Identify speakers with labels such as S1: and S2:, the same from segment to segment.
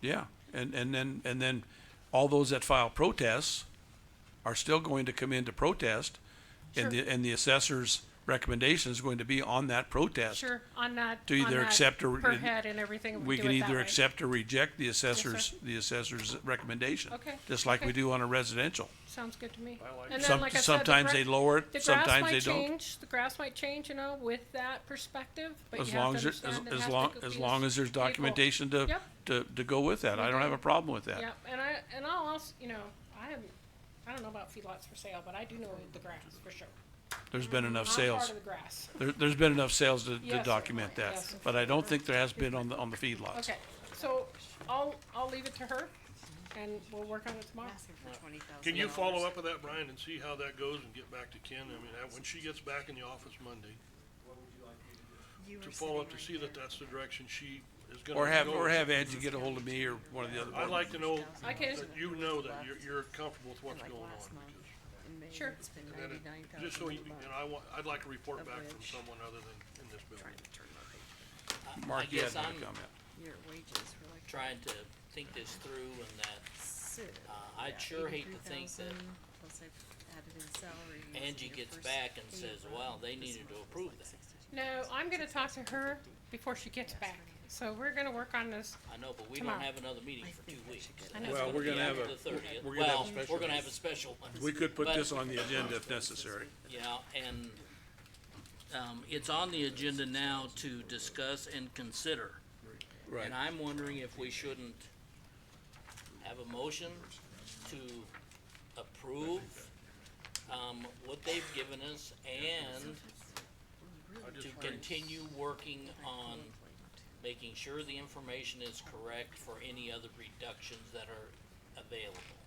S1: Yeah, and, and then, and then all those that file protests are still going to come in to protest. And the, and the assessor's recommendation is going to be on that protest.
S2: Sure, on that.
S1: To either
S2: on that
S1: accept or-
S2: Per head and everything.
S1: We
S2: do
S1: can
S2: it that
S1: either
S2: way.
S1: accept or reject the assessor's, the assessor's recommendation.
S2: Okay,
S1: Just like we
S2: okay.
S1: do on a residential.
S2: Sounds good to me.
S3: like
S2: And then,
S1: Some,
S2: like I said, the
S1: sometimes they
S2: gra-
S1: lower
S2: The
S1: it,
S2: grass
S1: sometimes they
S2: might
S1: don't.
S2: change, the grass might change, you know, with that perspective, but you
S1: As
S2: have
S1: long
S2: to
S1: as, it- as,
S2: understand it has
S1: as
S2: to
S1: long,
S2: go
S1: as
S2: be
S1: long as there's
S2: stable.
S1: documentation to,
S2: Yep.
S1: to, to go with that. I don't have a problem with that.
S2: Yeah, and I, and I'll also, you know, I am, I don't know about feedlots for sale, but I do know the grass for sure.
S1: There's been enough
S2: Mm-hmm. I'm
S1: sales.
S2: part of the grass.
S1: There, there's been enough sales to, to
S2: Yes.
S1: document that,
S2: Yes.
S1: but I don't think there has been on the, on the feedlots.
S2: Okay, so I'll, I'll leave it to her and we'll work on it tomorrow.
S4: Ask him for twenty thousand.
S3: Can you follow up with that, Brian, and see how that goes and get back to Ken? I mean, that- when she gets back in the office Monday, to follow up to see that that's the direction she is gonna
S1: Or have,
S3: go.
S1: or have Angie get a hold of me or one of the other.
S3: I'd like to know
S2: I can,
S3: that you know that you're, you're comfortable with what's going on. because-
S2: Sure.
S4: It's been
S3: and it-
S4: ninety-nine thousand.
S3: Just so you, and I want, I'd like a report
S4: Of
S3: back from
S4: which-
S3: someone other than in this building.
S4: Trying to turn my page.
S1: Mark, you had
S5: guess
S1: another
S5: I'm-
S1: comment.
S4: Your wages were like
S5: trying to think this through and that
S4: six.
S5: Uh, I'd
S4: yeah,
S5: sure hate to think that
S4: 83,000, Plus I've added in salaries. and
S5: Angie
S4: your
S5: gets
S4: first
S5: back and says,
S4: payroll,
S5: well, they
S4: this
S5: needed to
S4: month was
S5: approve
S4: like
S5: that.
S4: 62,000.
S2: no, I'm gonna talk to her before she gets back, so we're gonna work on this.
S5: I know, but we don't
S2: Tomorrow.
S5: have another meeting
S4: I
S5: for
S4: think
S5: two
S4: I
S5: weeks.
S4: should get
S2: I
S4: it.
S2: know.
S5: It's
S1: Well,
S5: gonna
S1: we're
S5: be
S1: gonna have
S5: after
S1: a-
S5: the 30th.
S1: we're gonna have a
S5: Well,
S1: special
S5: We're gonna have a special one.
S1: We could put
S5: But-
S1: this on the agenda if necessary.
S5: Yeah, and, um, it's on the agenda now to discuss and consider.
S1: Right.
S5: And I'm wondering if we shouldn't have a motion to approve, um, what they've given us and to continue working on making sure the information is correct for any other reductions that are available,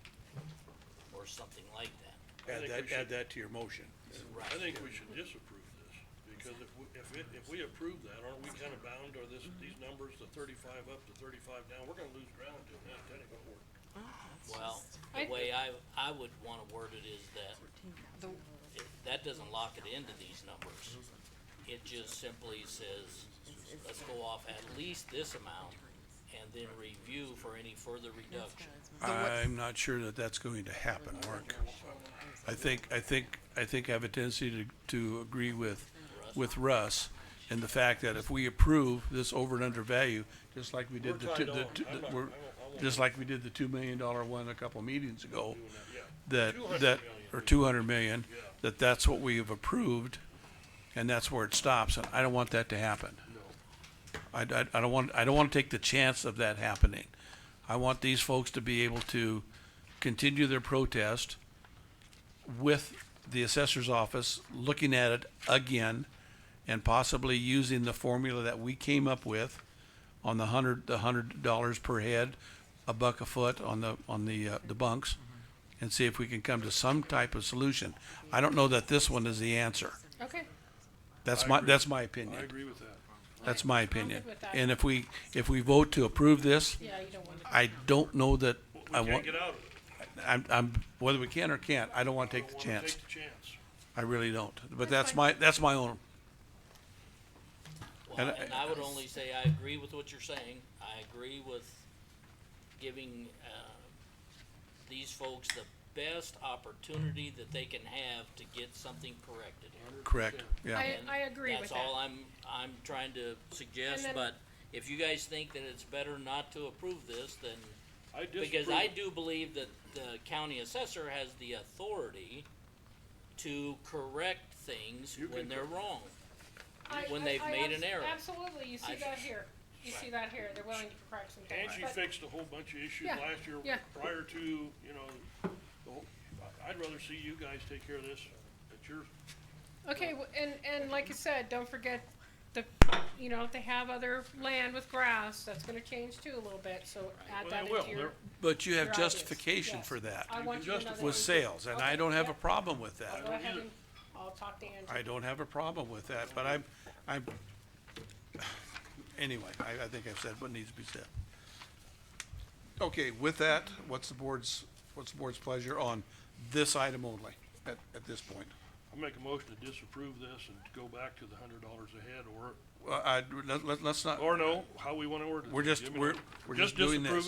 S5: or something like that.
S1: Add
S3: think we
S1: that,
S3: should-
S1: add that to your motion.
S3: I
S5: Right.
S3: think we should disapprove this, because if, we- if it, if we approve that, aren't we kinda bound, or this, these
S4: Mm-hmm.
S3: numbers, the thirty-five up to thirty-five down, we're gonna lose ground doing that, that ain't gonna work.
S5: Well,
S2: I-
S5: the way I, I would wanna word it is that,
S4: The-
S5: it- that doesn't lock it into these numbers. It just simply says, let's go off at least this amount, and then review for any further reduction.
S1: I'm not sure that that's going to happen, Mark. I think, I think, I think I have a tendency to, to agree with, with Russ and the fact that if we approve this over and under value, just like we did the,
S3: We're
S1: two-
S3: tied
S1: the,
S3: on.
S1: two-
S3: I'm
S1: the-
S3: not-
S1: we're,
S3: I won't- I won't-
S1: just like we did the two million dollar one a couple meetings ago,
S3: Yeah.
S1: that,
S3: 200
S1: that,
S3: million.
S1: or two hundred million,
S3: Yeah.
S1: that that's what we have approved, and that's where it stops, and I don't want that to happen. I, I, I don't want, I don't want to take the chance of that happening. I want these folks to be able to continue their protest with the assessor's office, looking at it again, and possibly using the formula that we came up with on the hundred, the hundred dollars per head, a buck a foot on the, on the, uh, the bunks, and see if we can come to some type of solution. I don't know that this one is the answer.
S2: Okay,
S1: That's my, that's my opinion.
S3: I agree with that.
S1: That's my opinion.
S2: good with that.
S1: And if we, if we vote to approve this,
S2: yeah, you don't want to.
S1: I don't know that I
S3: We can't
S1: want,
S3: get out of it.
S1: I'm, I'm, whether we can or can't, I don't want to take the
S3: Don't wanna
S1: chance.
S3: Take the chance.
S1: I really don't. But
S2: That's
S1: that's
S2: fine.
S1: my, that's my own,
S5: Well,
S1: And I-
S5: and I would only say I agree with what you're saying. I agree with giving, uh, these folks the best opportunity that they can have to get something corrected.
S1: correct, yeah.
S2: I,
S5: And
S2: I agree with that.
S5: That's all I'm, I'm trying to suggest,
S2: then-
S5: but if you guys think that it's better not to approve this, then,
S3: I
S5: because
S3: disapprove.
S5: I do believe that the county assessor has the authority to correct things
S3: You
S5: when
S3: can
S5: they're wrong.
S2: I-
S5: when
S2: I-
S5: they've
S2: I
S5: made
S2: abs-
S5: an error.
S2: Absolutely, you see
S5: I-
S2: that here, you see that here, they're willing to correct some things,
S3: Angie
S2: but-
S3: fixed a whole bunch of issues
S2: Yeah,
S3: last year
S2: yeah.
S3: prior to, you know, the whole, I- I'd rather see you guys take care of this at your,
S2: Okay, w- and, and like I said, don't forget the, you know, if they have other land with grass, that's gonna change too a little bit, so add
S3: well,
S2: that
S3: they will.
S2: into your.
S3: They're-
S1: But you have
S2: your ideas.
S1: justification
S2: Yes.
S1: for that,
S2: I want you to know that.
S1: with sales, and I
S2: Okay,
S1: don't have a
S2: yep.
S1: problem with
S2: I'll
S1: that.
S2: Go ahead
S3: either.
S2: and I'll talk to Angie.
S1: I don't have a problem with that, but I'm, I'm, anyway, I, I think I've said what needs to be said. Okay, with that, what's the board's, what's the board's pleasure on this item only at, at this point?
S3: I'll make a motion to disapprove this and go back to the hundred dollars a head or,
S1: Well, I, let, let, let's not,
S3: or no, how we wanna order it.
S1: we're just,
S3: Give me
S1: we're,
S3: that.
S1: we're just doing
S3: disapprove
S1: this.